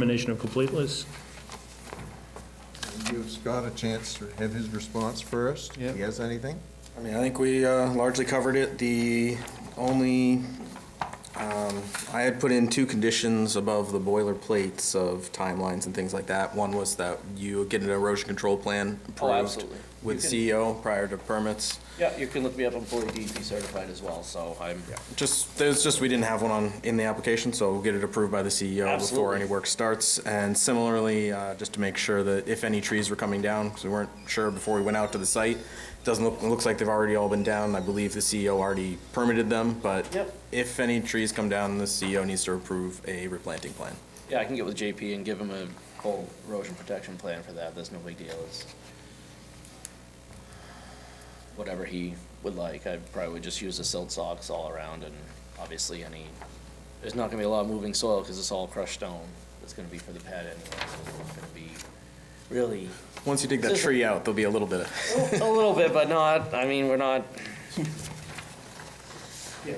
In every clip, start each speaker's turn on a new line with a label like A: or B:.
A: Determination of complete list.
B: Give Scott a chance to have his response first.
C: Yep.
B: If he has anything?
D: I mean, I think we uh, largely covered it. The only, um, I had put in two conditions above the boilerplates of timelines and things like that. One was that you get an erosion control plan
E: Oh,
D: approved
E: absolutely.
D: with
E: You
D: CEO prior to permits.
E: Yeah, you can look me up, I'm fully DEP certified as well, so I'm,
D: Just, there's just, we didn't have one on, in the application, so we'll get it approved by the CEO before
E: Absolutely.
D: any work starts. And similarly, uh, just to make sure that if any trees were coming down, because we weren't sure before we went out to the site, doesn't look, it looks like they've already all been down. I believe the CEO already permitted them, but
E: Yep.
D: if any trees come down, the CEO needs to approve a replanting plan.
E: yeah, I can get with JP and give him a whole erosion protection plan for that, that's no big deal, it's whatever he would like, I probably would just use the silt socks all around and obviously any, there's not gonna be a lot of moving soil, cause it's all crushed stone, it's gonna be for the pad anyway, so it's not gonna be really,
D: Once you dig that tree out, there'll be a little bit of,
E: a little bit, but not, I mean, we're not,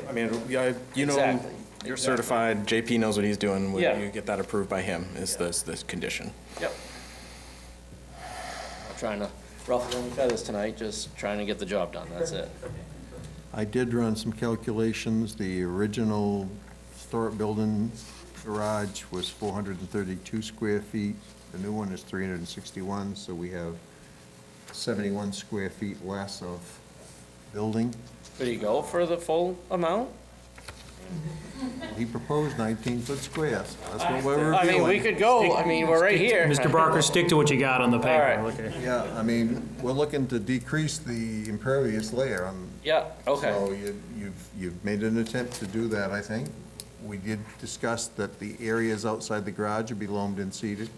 D: I mean, I- you know,
E: exactly.
D: you're
E: Exactly.
D: certified, JP knows what he's doing.
E: Yeah.
D: When you get that approved by him, is this, this condition.
E: Yep. I'm trying to ruffle any feathers tonight, just trying to get the job done, that's it.
B: I did run some calculations. The original historic building garage was 432 square feet. The new one is 361, so we have 71 square feet less of building.
E: Could he go for the full amount?
B: He proposed 19-foot squares. That's what we're
E: I mean, we
B: reviewing.
E: could go, I mean, we're right here.
A: Mr. Barker, stick to what you got on the
E: All
A: paper.
E: right.
A: Okay.
B: Yeah, I mean, we're looking to decrease the impervious layer on
E: Yeah, okay,
B: So you- you've, you've made an attempt to do that, I think. We did discuss that the areas outside the garage would be loamed and seeded.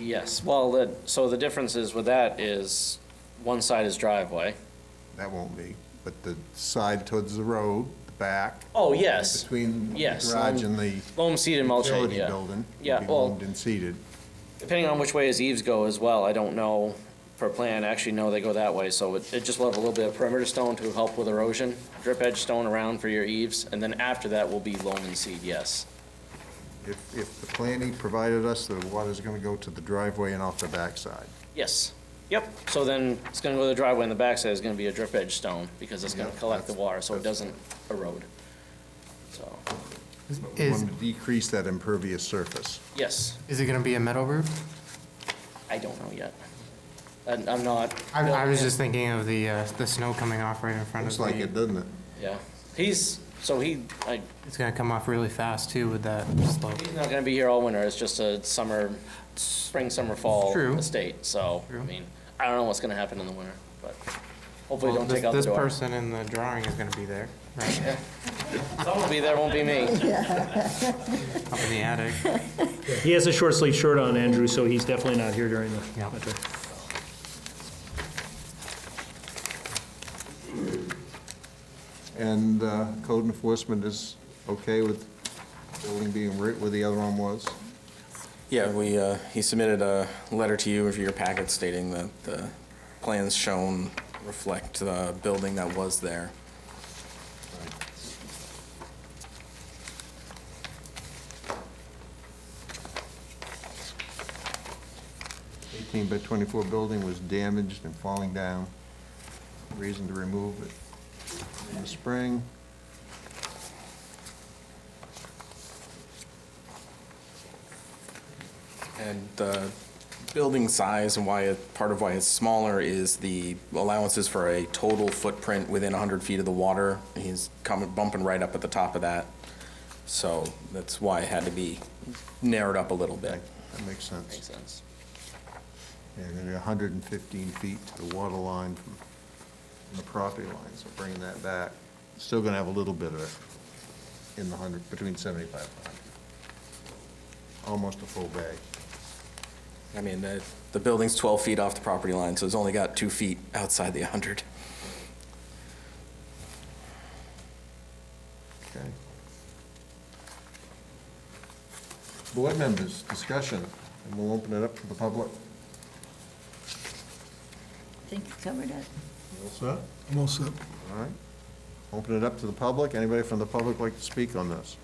E: yes, well, the, so the difference is with that is, one side is driveway.
B: That won't be, but the side towards the road, the back,
E: Oh, yes,
B: between the
E: Yes,
B: garage and the
E: loam seed and mulch,
B: utility
E: yeah.
B: building
E: Yeah,
B: will be
E: well-
B: loamed and seeded.
E: Depending on which way his eaves go as well, I don't know per plan, actually, no, they go that way, so it, it just will have a little bit of perimeter stone to help with erosion, drip edge stone around for your eaves, and then after that will be loam and seed, yes.
B: If, if the plan he provided us, the water's gonna go to the driveway and off the backside.
E: Yes, yep, so then it's gonna go to the driveway and the backside is gonna be a drip edge stone, because it's gonna
B: Yeah,
E: collect the
B: that's-
E: water, so it
B: that's-
E: doesn't erode. So,
B: We
F: Is,
B: want to decrease that impervious surface.
E: yes,
F: is it gonna be a metal roof?
E: I don't know yet. And I'm not.
F: I, I was just thinking of the, uh, the snow coming off right in front of
B: Looks like it,
F: the,
B: doesn't it?
E: Yeah, he's, so he, I,
F: it's gonna come off really fast too with that slope.
E: He's not gonna be here all winter, it's just a summer, spring, summer, fall
F: True.
E: estate, so, I
F: True.
E: mean, I don't know what's gonna happen in the winter, but hopefully
F: Well,
E: don't
F: This
E: take out the
F: this
E: door.
F: person in the drawing is gonna be there, right,
E: Someone will be there, won't be me.
F: up in the attic.
A: He has a short sleeve shirt on, Andrew, so he's definitely not here during the
F: Yeah.
A: winter.
B: And uh, code enforcement is okay with building being right where the other one was?
D: Yeah, we, uh, he submitted a letter to you of your packet stating that the plans shown reflect the building that was there.
B: Eighteen by twenty-four building was damaged and falling down. Reason to remove it in the spring.
D: And the building size and why, it- part of why it's smaller is the allowances for a total footprint within 100 feet of the water. He's coming, bumping right up at the top of that. So that's why it had to be narrowed up a little bit.
B: That that makes
E: Makes
B: sense.
E: sense.
B: And then hundred and fifteen feet to the water line from from the property line, so bringing that back. Still gonna have a little bit of it in the hundred, between seventy-five and hundred. Almost a full bay.
D: I mean, the, the building's 12 feet off the property line, so it's only got two feet outside the 100.
B: Okay. Board members, discussion, and we'll open it up to the public.
G: I think you covered it.
B: All set? All set. All right. Open it up to the public. Anybody from the public like to speak on this?